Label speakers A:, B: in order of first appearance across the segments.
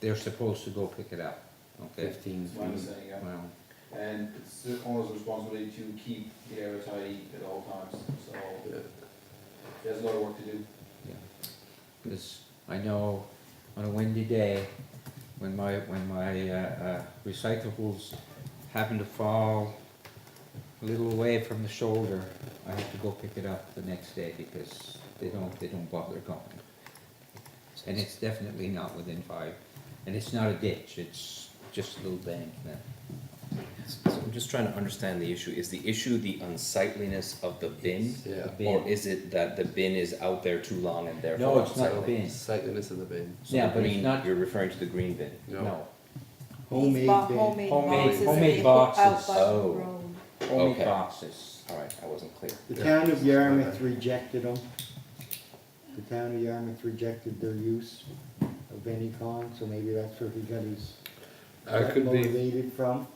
A: they're supposed to go pick it up, okay?
B: fifteen
C: That's what I'm
B: feet.
C: saying, yeah.
A: Well,
C: And it's the owner's responsibility to keep the area tidy at all times, so there's a lot of work to do.
A: yeah, because I know on a windy day, when my, when my, uh, uh, recyclables happen to fall a little away from the shoulder, I have to go pick it up the next day because they don't, they don't bother going. And it's definitely not within five, and it's not a ditch, it's just a little bank now.
D: So I'm just trying to understand the issue. Is the issue the unsightliness of the bin?
B: Yeah.
A: bin.
D: Or is it that the bin is out there too long and therefore?
A: No, it's not a
D: unsightly?
A: bin,
B: Sightliness of the bin.
D: So
A: Yeah,
D: the
A: but it's
D: green-
A: not-
D: You're referring to the green bin?
A: no.
E: He's bought homemade
A: Homemade-
E: boxes. and
A: homemade
E: they go out
A: boxes.
E: by the
D: Oh.
E: road.
A: Only
D: Okay.
A: boxes.
D: All right, I wasn't clear.
F: The town of Yarmouth rejected them. The town of Yarmouth rejected their use of any kind, so maybe that's where he got his
B: I
F: got
B: could be,
F: motivated from.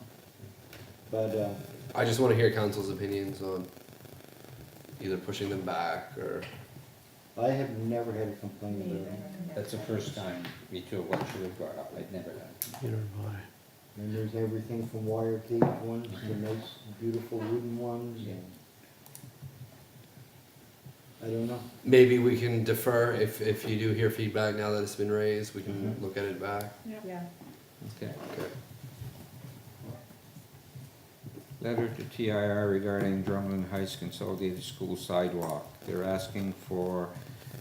F: But, uh,
B: I just wanna hear council's opinions on either pushing them back or,
F: I have never had a complaint about it.
A: That's the first time me too, what you have brought up, I'd never done.
F: And there's everything from wire cage ones to nice beautiful wooden ones and. I don't know.
B: maybe we can defer if, if you do hear feedback now that it's been raised, we can look at it back.
E: Yeah.
A: Okay.
B: Okay.
A: Letter to TIR regarding Drumlin Heights Consolidated School sidewalk. They're asking for,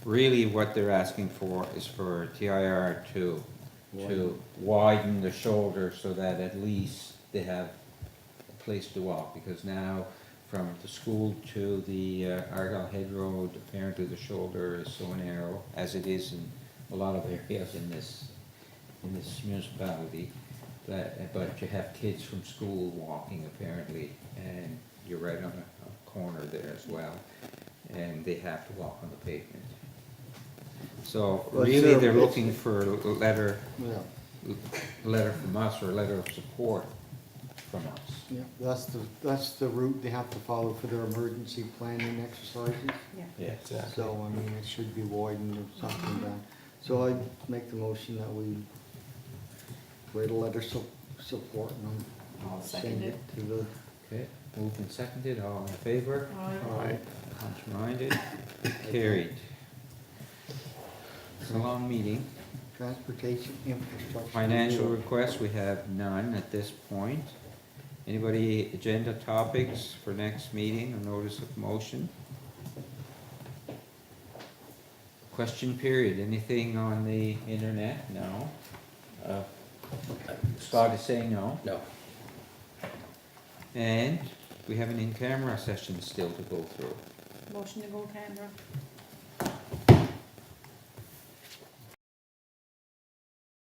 A: really what they're asking for is for TIR to, to widen the shoulder so that at least they have a place to walk, because now from the school to the uh, Argyle Head Road, apparently the shoulder is so narrow, as it is in a lot of areas in this, in this municipality, that, but you have kids from school walking apparently, and you're right on a, a corner there as well, and they have to walk on the pavement. So
F: Well,
A: really,
F: sir,
A: they're
F: it's-
A: looking for a letter,
F: Well,
A: a letter from us or a letter of support from us.
F: yeah, that's the, that's the route they have to follow for their emergency planning exercises.
E: Yeah.
A: Yes.
F: So, I mean, it should be widened or something down. So I make the motion that we write a letter su- supporting them.
E: I'll
F: Send
E: second
F: it
E: it.
F: to the, uh,
A: Okay, moved and seconded, all in favor?
F: Aye.
A: Contrary-minded? Carried. It's a long meeting.
F: transportation infrastructure.
A: Financial requests, we have none at this point. Anybody, agenda topics for next meeting, a notice of motion? Question period, anything on the internet? No. Uh, Scott is saying no.
D: No.
A: And we have an in-camera session still to go through.
E: Motion to go camera.